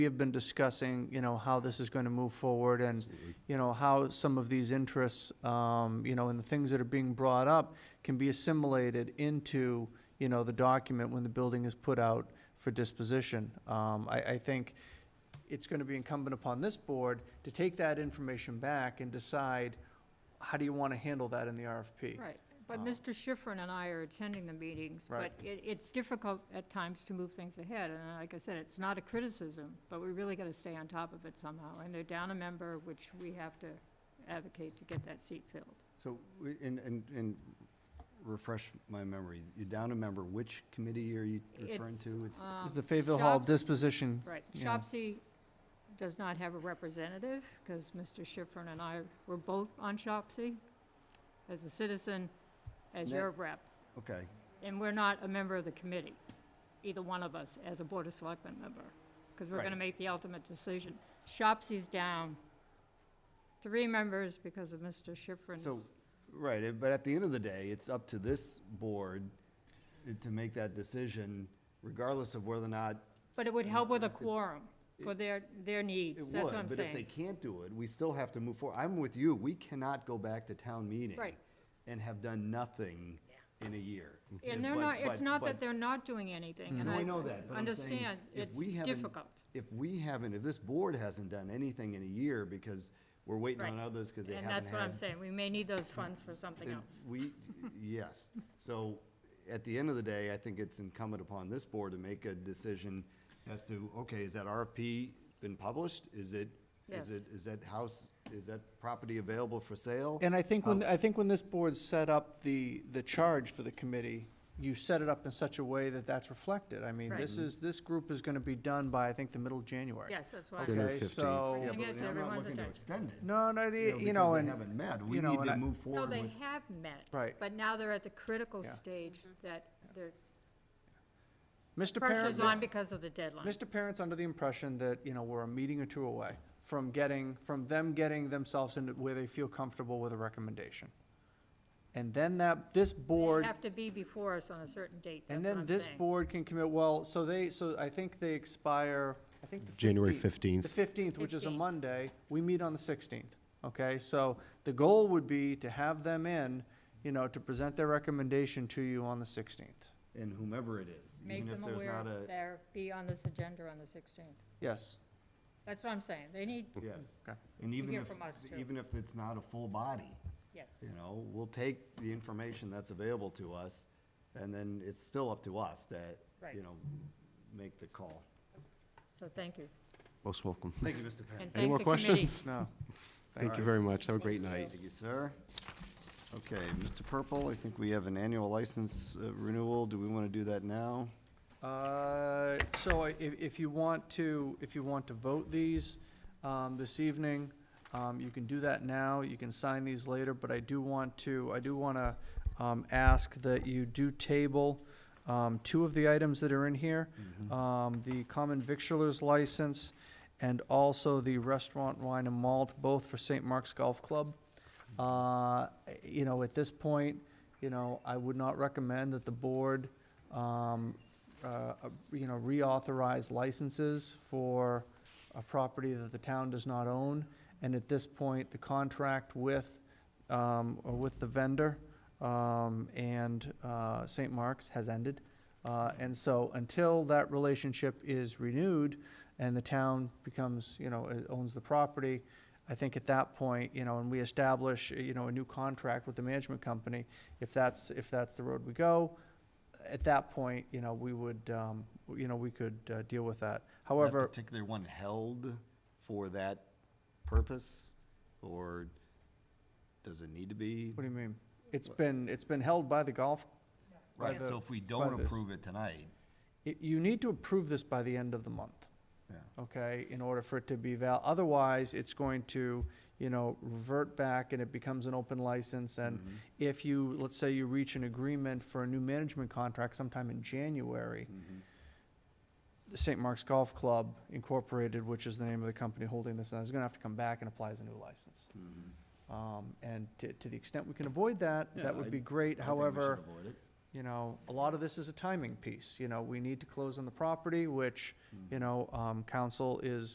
We have been discussing, you know, how this is going to move forward and, you know, how some of these interests, um, you know, and the things that are being brought up can be assimilated into, you know, the document when the building is put out for disposition. Um, I, I think it's going to be incumbent upon this board to take that information back and decide, how do you want to handle that in the RFP? Right, but Uh, Mr. Schifrin and I are attending the meetings, but Right. it, it's difficult at times to move things ahead, and like I said, it's not a criticism, but we really gotta stay on top of it somehow, and they're down a member, which we have to advocate to get that seat filled. So, we- and, and, and refresh my memory, you're down a member, which committee are you referring It's, to? It's Is um, the Fayetteville Hall Shops- disposition, Right, Yeah. Shopsy does not have a representative, because Mr. Schifrin and I were both on Shopsy as a citizen, as That- your rep, Okay, and we're not a member of the committee, either one of us, as a Board of Selectmen member, because we're gonna Right. make the ultimate decision. Shopsy's down three members because of Mr. Schifrin's. so, right, eh, but at the end of the day, it's up to this board eh, to make that decision regardless of whether or not. But it would help with a It- quorum for their, their it needs, that's what would. I'm But if they saying. can't do it, we still have to move forward. I'm with you, we cannot go back to town meeting. Right. And have done nothing in a year. And they're But- not, it's but- not but- that they're not doing anything, and No, I. I know that, but I'm saying, Understand, if it's we haven't- difficult. if we haven't, if this board hasn't done anything in a year because we're waiting on Right. others because they And haven't that's what I'm had- saying, we may need those funds for something then else. We, yes. So at the end of the day, I think it's incumbent upon this board to make a decision as to, okay, is that RFP been published? Is it, Yes. is it, is that house, is that property available for sale? And I think Um, when, I think when this board set up the, the charge for the committee, you set it up in such a way that that's reflected. I mean, Right. this is, this group is gonna be done by, I think, the middle of January. Yes, that's why, Dinner Okay, 15th. so, Yeah, Bring but it to I'm not everyone's looking to attention. extend it. no, no, y- you know, because they and, haven't met. We you know, need and I- to move no, forward with. they have met. Right. But now they're at the critical Yeah. stage that they're Mr. Parent, pressure's on because of the deadline. Mr. Parent's under the impression that, you know, we're a meeting or two away from getting, from them getting themselves into where they feel comfortable with a recommendation. And then that, this board They have to be before us on a certain date, that's And what I'm saying. then this board can commit, well, so they, so I think they expire, I think the 15th. January The 15th. 15th, which is a 15th. Monday, we meet on the 16th, okay? So the goal would be to have them in, you know, to present their recommendation to you on the 16th. And whomever it is, Make even if them there's aware not a, they're, be on this agenda on the sixteenth. Yes, That's what I'm saying, they need, yes. Okay. And even hear if, from us, too. even if it's not a full body, yes. You know, we'll take the information that's available to us, and then it's still up to us that, Right. you know, make the call. So thank you. Most welcome. Thank you, Mr. Parent. And thank more the committee. questions? no. Thank you very much. Have a great night. Thank you, sir. Okay, Mr. Purple, I think we have an annual license uh, renewal. Do we want to do that now? Uh, So i- if, if you want to, if you want to vote these um, this evening, um, you can do that now, you can sign these later, but I do want to, I do want to um, ask that you do table um, two of the items that are in here, um, the common victualers license and also the restaurant wine and malt, both for St. Mark's Golf Club. Uh, You know, at this point, you know, I would not recommend that the board um, uh, uh, you know, reauthorize licenses for a property that the town does not own. And at this point, the contract with, um, or with the vendor, um, and, uh, St. Mark's has ended. Uh, and so until that relationship is renewed and the town becomes, you know, uh, owns the property, I think at that point, you know, and we establish, uh, you know, a new contract with the management company, if that's, if that's the road we go, at that point, you know, we would, um, you know, we could, uh, deal with that. Is However, that particular one held for that purpose, or does it need to be? what do you mean? It's been, it's been held by the golf, by Right, so the- if we don't by this. approve it tonight, y- you need to approve this by the end of the month, yeah, okay, in order for it to be val, otherwise, it's going to, you know, revert back and it becomes an open license, and Mm. if you, let's say you reach an agreement for a new management contract sometime in January, the St. Mark's Golf Club Incorporated, which is the name of the company holding this, is gonna have to come back and apply as a new license. Mm-hmm. Um, and to, to the extent we can avoid that, Yeah, that would I- be great, I think we should however, avoid it. you know, a lot of this is a timing piece, you know, we need to close on the property, which, you know, um, council is